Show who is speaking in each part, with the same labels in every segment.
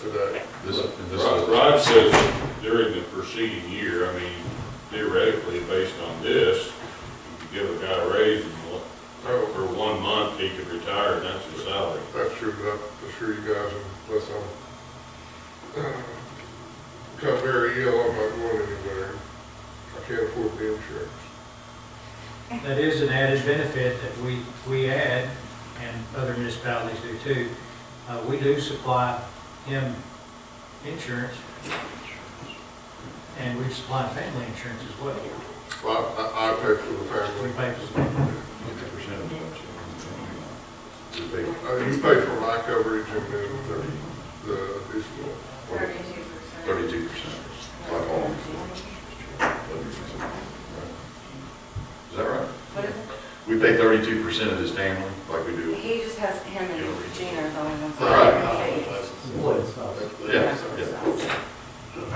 Speaker 1: today.
Speaker 2: This, and this
Speaker 3: Rod
Speaker 2: is,
Speaker 3: Rod says that during the preceding year, I mean theoretically, based on this, you could give a guy a raise and what,
Speaker 1: No,
Speaker 3: for one month, he could retire and that's his salary.
Speaker 1: that's true, but I'm sure you guys, unless I'm, uh, become very ill, I'm not going anywhere. I can't afford the insurance.
Speaker 4: That is an added benefit that we, we add, and other municipalities do too. Uh, we do supply him insurance, and we supply family insurance as well.
Speaker 1: Well, I, I pay for the
Speaker 4: We
Speaker 1: family.
Speaker 4: pay for it.
Speaker 2: fifty percent of that. Would be-
Speaker 1: Uh, you pay for my coverage and then the, the additional.
Speaker 5: Thirty-two percent.
Speaker 2: Thirty-two percent, like all. Is that right?
Speaker 5: What is
Speaker 2: We pay thirty-two percent of his family, like we do.
Speaker 5: it? He just has him and Gina are the only ones.
Speaker 2: Right. Yeah, yeah.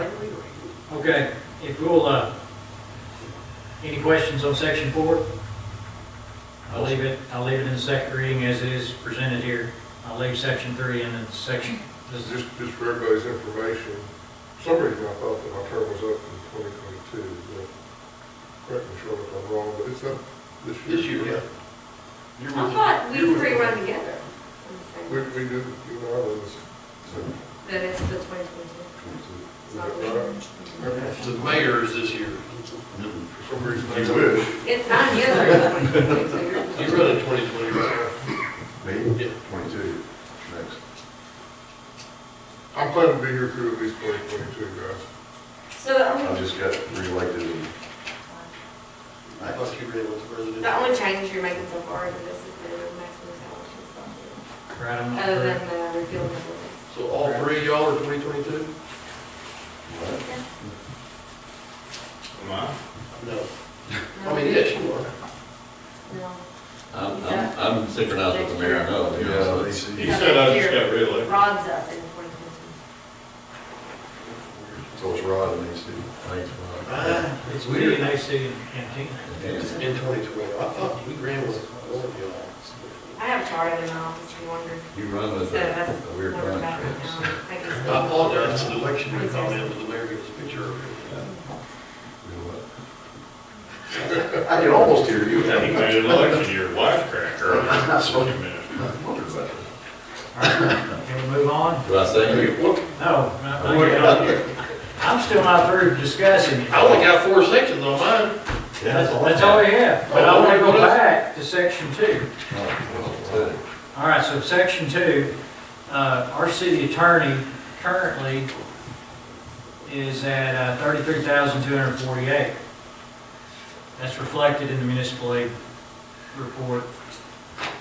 Speaker 4: Okay, if we'll, uh, any questions on section four? I'll leave it, I'll leave it in the second reading as it is presented here. I'll leave section three in and section, this is,
Speaker 1: Just, just for everybody's information, for some reason I thought that my term was up in twenty twenty-two, but correct me Shirley if I'm wrong, but it's up this year.
Speaker 2: This year, yeah.
Speaker 5: I thought we three run together.
Speaker 1: We, we do, you know, I was,
Speaker 5: That it's the twenty-two.
Speaker 1: is that right?
Speaker 6: The mayor is this year.
Speaker 1: For some reason, I
Speaker 2: You
Speaker 1: wish.
Speaker 5: It's not the
Speaker 6: He
Speaker 5: other.
Speaker 6: run in 2020.
Speaker 2: Me?
Speaker 6: Yeah.
Speaker 2: Twenty-two, next.
Speaker 1: I'm planning to be here through at least twenty twenty-two, guys.
Speaker 5: So the
Speaker 2: I
Speaker 5: only,
Speaker 2: just got reelected in
Speaker 6: I thought you ran with the president.
Speaker 5: the only change you're making so far is this is the maximum salary and stuff.
Speaker 4: right, I'm not
Speaker 5: Other
Speaker 4: sure.
Speaker 5: than the repeal of the ordinance.
Speaker 6: So all three of y'all are 2022?
Speaker 3: Am I?
Speaker 6: No. I mean, yes, you are.
Speaker 5: No.
Speaker 7: I'm, I'm, I'm synchronized with the mayor, I know, you
Speaker 2: Yeah,
Speaker 7: know,
Speaker 2: they
Speaker 7: so
Speaker 2: see.
Speaker 3: He said I just got
Speaker 5: No.
Speaker 3: reelected.
Speaker 5: Rod's up in twenty twenty-two.
Speaker 2: So it's Rod and AC.
Speaker 7: thanks,
Speaker 5: Uh,
Speaker 7: Ron.
Speaker 6: Ah,
Speaker 4: It's really nice to, and Tina.
Speaker 6: It's in 2020. I thought we ran with all of
Speaker 5: I
Speaker 6: y'all.
Speaker 5: have Charlie in my office, if you wonder.
Speaker 7: You run
Speaker 5: So
Speaker 7: with a
Speaker 5: that's
Speaker 7: a
Speaker 5: what
Speaker 7: weird
Speaker 5: we're
Speaker 7: bunch.
Speaker 5: about right now. I think it's-
Speaker 6: I apologize for the election year comment, but the mayor gave us a picture of
Speaker 2: I can almost hear you.
Speaker 3: He made an election year wisecracker. Wait a minute.
Speaker 4: All right, Can we move on?
Speaker 7: Do I say you?
Speaker 4: No, not- not yet. I'm still not through discussing it.
Speaker 6: it. I only got four sections on mine.
Speaker 4: That's, that's all we have, but I wanna go back to section two. All right, so section two, uh, our city attorney currently is at uh, thirty-three thousand two hundred forty-eight. That's reflected in the municipal aid report.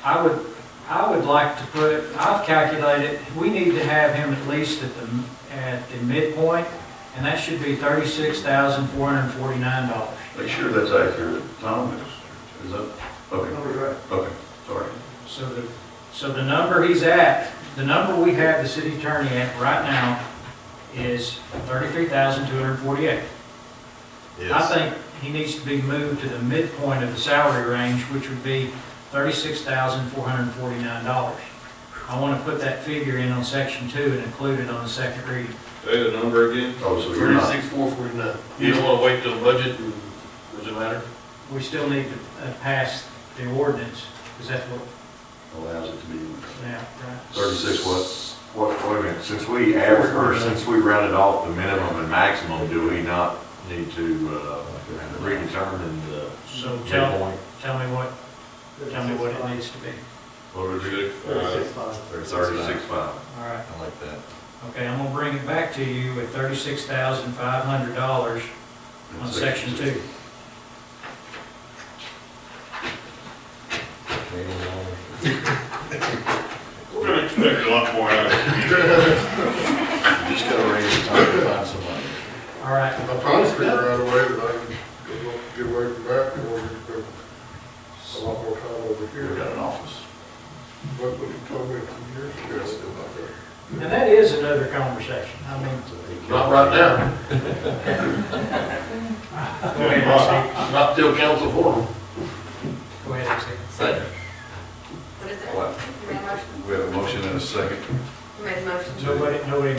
Speaker 4: I would, I would like to put, I've calculated, we need to have him at least at the, at the midpoint, and that should be thirty-six thousand four hundred forty-nine dollars.
Speaker 2: Make sure that's accurate, Tom, is that, okay, okay, sorry.
Speaker 4: So the, so the number he's at, the number we have the city attorney at right now is thirty-three thousand two hundred forty-eight. I
Speaker 7: Yes.
Speaker 4: think he needs to be moved to the midpoint of the salary range, which would be thirty-six thousand four hundred forty-nine dollars. I want to put that figure in on section two and include it on the second reading.
Speaker 3: Say the number again.
Speaker 2: Oh, so you're not,
Speaker 6: 36, 449. You don't want to wait till budget and, does it matter?
Speaker 4: We still need to uh, pass the ordinance, because that's what,
Speaker 2: allows it to be
Speaker 4: yeah, right.
Speaker 2: thirty-six what?
Speaker 8: What, wait a minute, since we average, or since we rounded off the minimum and maximum, do we not need to, uh, redetermine the
Speaker 4: So tell,
Speaker 8: midpoint?
Speaker 4: tell me what, tell me what it needs to be.
Speaker 8: What would it be?
Speaker 3: Uh,
Speaker 8: Thirty-six five.
Speaker 4: All right.
Speaker 7: I like that.
Speaker 4: Okay, I'm gonna bring it back to you at thirty-six thousand five hundred dollars on section two.
Speaker 7: Maybe I'll-
Speaker 3: We're gonna expect a lot more out of you.
Speaker 2: You just gotta raise the time to find somebody.
Speaker 4: All right,
Speaker 1: I'm trying to figure out a way that I can get- get away from that, or we could spend a lot more time over
Speaker 2: We got
Speaker 1: here.
Speaker 2: an office.
Speaker 1: But what you told me a few years ago, it's still not there.
Speaker 4: and that is another conversation. I mean,
Speaker 6: Not right now,
Speaker 4: go ahead, Steve.
Speaker 6: not till council forum.
Speaker 4: Go ahead, Steve.
Speaker 7: Second.
Speaker 5: What is it?
Speaker 2: What?
Speaker 5: You made a motion?
Speaker 2: We have a motion and a second.
Speaker 5: You made a motion?
Speaker 4: Nobody, nobody